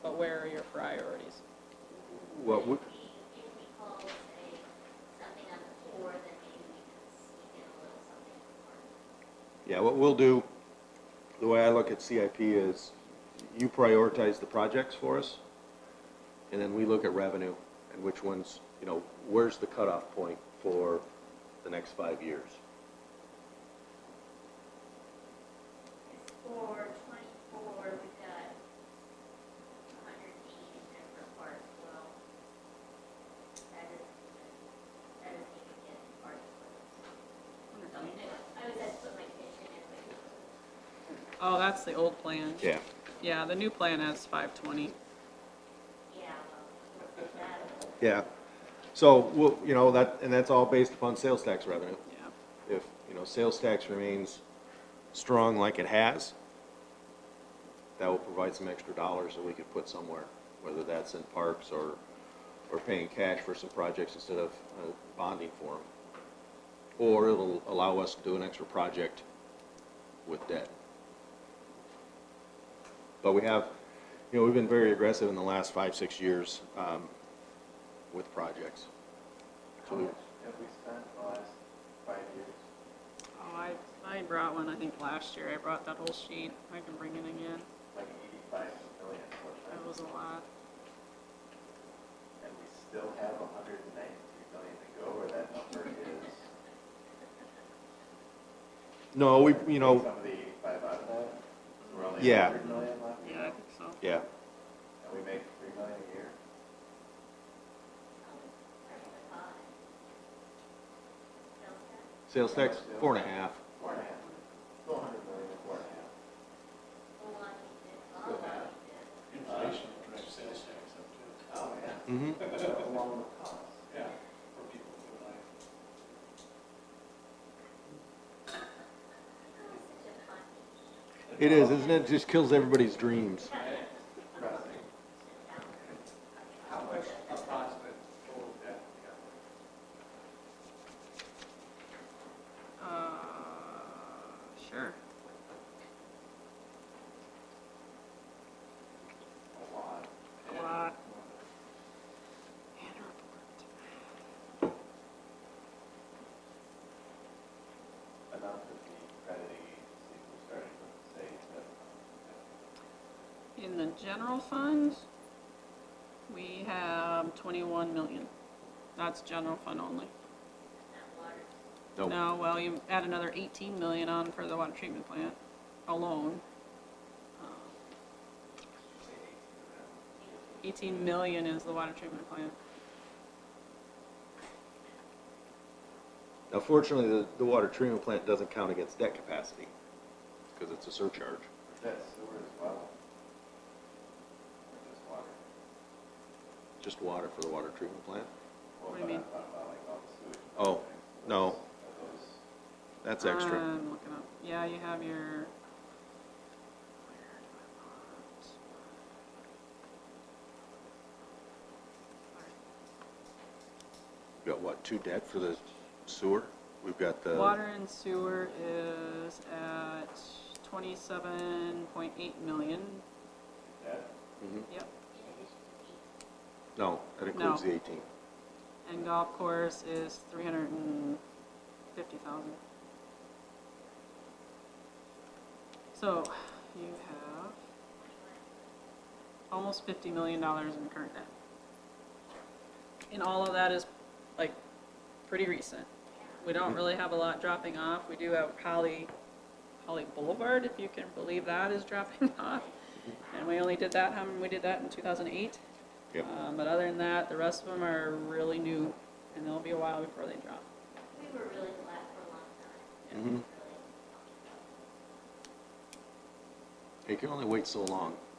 where are your priorities? What would, If we call, say, something on the floor, then maybe we can sneak in a little something more. yeah, what we'll do, the way I look at CIP is you prioritize the projects for us, and then we look at revenue and which ones, you know, where's the cutoff point for the next five years? For twenty-four, we've got a hundred and eighty in that report as well. That is, that is taken in part as well. So I was at put my kitchen in, but Oh, that's the old plan. Yeah. Yeah, the new plan has five twenty. yeah, well, we'll take that. Yeah, so, we'll, you know, that, and that's all based upon sales tax revenue. Yeah. if, you know, sales tax remains strong like it has, that will provide some extra dollars that we could put somewhere, whether that's in parks or, or paying cash for some projects instead of uh, bonding for them. Or it'll allow us to do an extra project with debt. But we have, you know, we've been very aggressive in the last five, six years um, with projects. How much have we spent the last five years? Oh, I, I brought one, I think last year. I brought that whole sheet. I can bring it again. Like eighty-five million, which That was a lot. and we still have hundred and ninety-three million to go, where that number is. No, we, you know. Some of the eighty-five out of that, so we're only Yeah. hundred million left, Yeah, I think so. Yeah. and we make three million a year. Sales tax, four and a half. Four and a half. Four hundred million, four and a half. Inflation drives sales tax up too, Oh, yeah. Mm-hmm. Along with costs. yeah, for people to like. It is, isn't it? Just kills everybody's dreams. Pressing. How much approximate total debt we have? Uh, sure. A lot. A lot. And report. Enough that the credit agency was starting to say that. In the general fund, we have twenty-one million. That's general fund only. No, No, well, you add another eighteen million on for the water treatment plant alone. Uh, Eighteen million is the water treatment plant. Now fortunately, the, the water treatment plant doesn't count against debt capacity, because it's a surcharge. That's sewer as well. Or just water. Just water for the water treatment plant? Well, What do you but I mean? thought about, like, all the sewage. Oh, no, Those- that's extra. I'm looking up. Yeah, you have your. We've got what, two debt for the sewer? We've got the. Water and sewer is at twenty-seven point eight million. That, Mhm. Yep. No, that includes No. the eighteen. And golf course is three hundred and fifty thousand. So you have almost fifty million dollars in current debt. And all of that is like pretty recent. We don't really have a lot dropping off. We do have Holly, Holly Boulevard, if you can believe that is dropping off. And we only did that, how, we did that in two thousand eight. Yep. Um, but other than that, the rest of them are really new, and it'll be a while before they drop. We were really glad for a long time. Mm-hmm. Mhm. You can only wait so long.